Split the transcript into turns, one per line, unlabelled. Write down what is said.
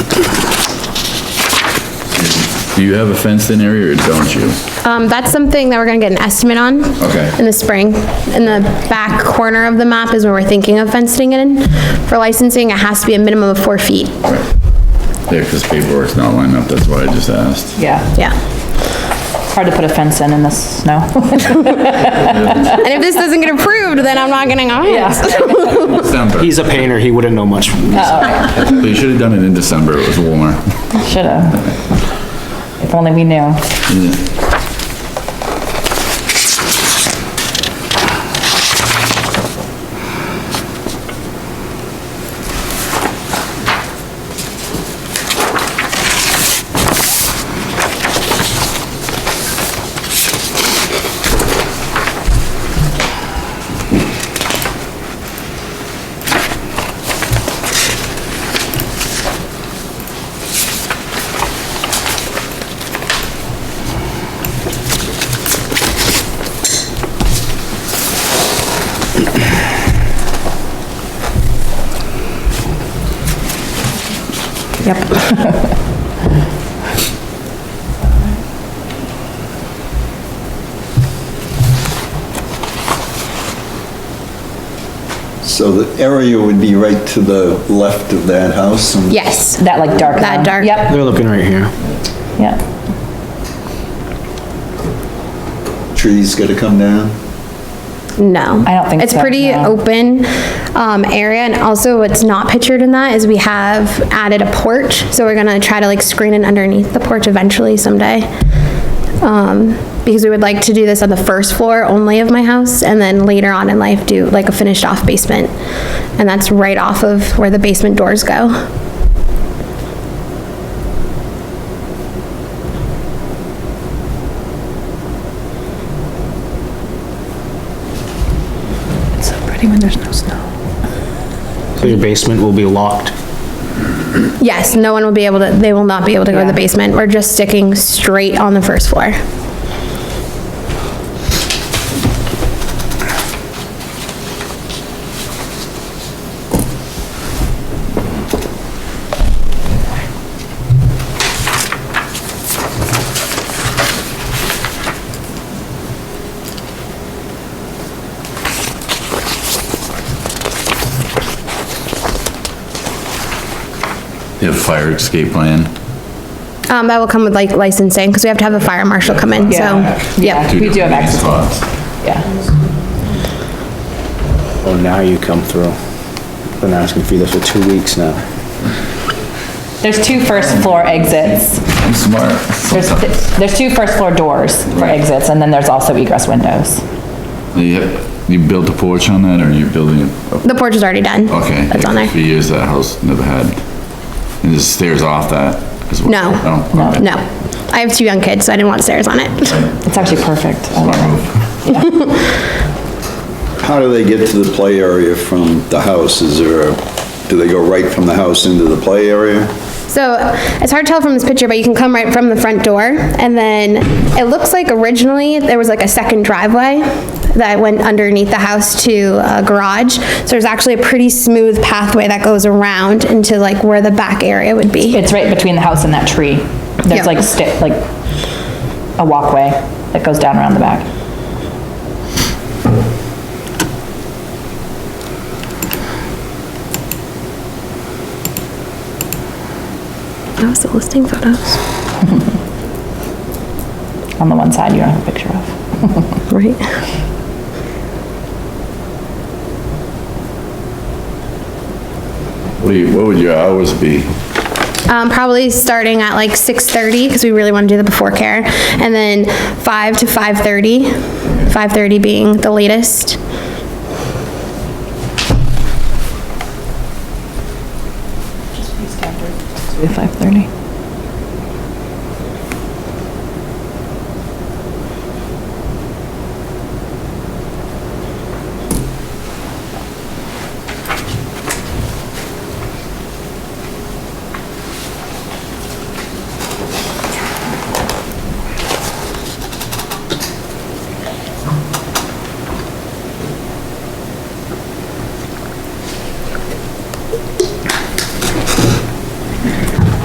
Do you have a fenced-in area or don't you?
Um, that's something that we're gonna get an estimate on.
Okay.
In the spring. In the back corner of the map is where we're thinking of fencing it in. For licensing, it has to be a minimum of four feet.
Yeah, because paperwork's not lined up, that's why I just asked.
Yeah,
Yeah.
hard to put a fence in in the snow.
And if this doesn't get approved, then I'm not getting on.
Yeah.
December.
He's a painter, he wouldn't know much.
You should have done it in December, it was warmer.
Should've. If only we knew. Yep.
So the area would be right to the left of that house? and-
Yes.
That like dark.
That
one.
dark.
Yep,
They're looking right here.
yep.
Trees gotta come down?
No.
I don't think
It's
so,
pretty
no.
open, um, area, and also what's not pictured in that is we have added a porch, so we're gonna try to like screen it underneath the porch eventually someday. Um, because we would like to do this on the first floor only of my house, and then later on in life do like a finished off basement. And that's right off of where the basement doors go.
It's so pretty when there's no snow.
So your basement will be locked.
Yes, no one will be able to, they will not be able to go to the
Yeah.
basement. We're just sticking straight on the first floor.
You have fire escape plan?
Um, that will come with like licensing, because we have to have a fire marshal come in, so,
Yeah,
yep.
we do have access,
Spots.
yeah.
Oh, now you come through. Been asking for this for two weeks now.
There's two first floor exits.
I'm smart.
There's, there's two first floor doors for
Right.
exits, and then there's also egress windows.
Yep, you built a porch on that, or are you building it? up?
The porch is already done.
Okay.
That's on there.
For years, that house never had, and there's stairs off that as well? Oh.
No.
No? Okay.
No. I have two young kids, so I didn't want stairs on it.
It's actually perfect. I love
Smart
it.
move.
How do they get to the play area from the house? Is there, a- do they go right from the house into the play area?
So it's hard to tell from this picture, but you can come right from the front door. And then it looks like originally there was like a second driveway that went underneath the house to a garage. So there's actually a pretty smooth pathway that goes around into like where the back area would be.
It's right between the house and that tree.
Yeah.
There's like sti, like a walkway that goes down around the back.
That was the listing photos,
On the one side you don't have a picture of.
right?
What do you, what would your hours be?
Um, probably starting at like 6:30 because we really want to do the before care, and then 5 to 5:30, 5:30 being the latest.
Five thirty.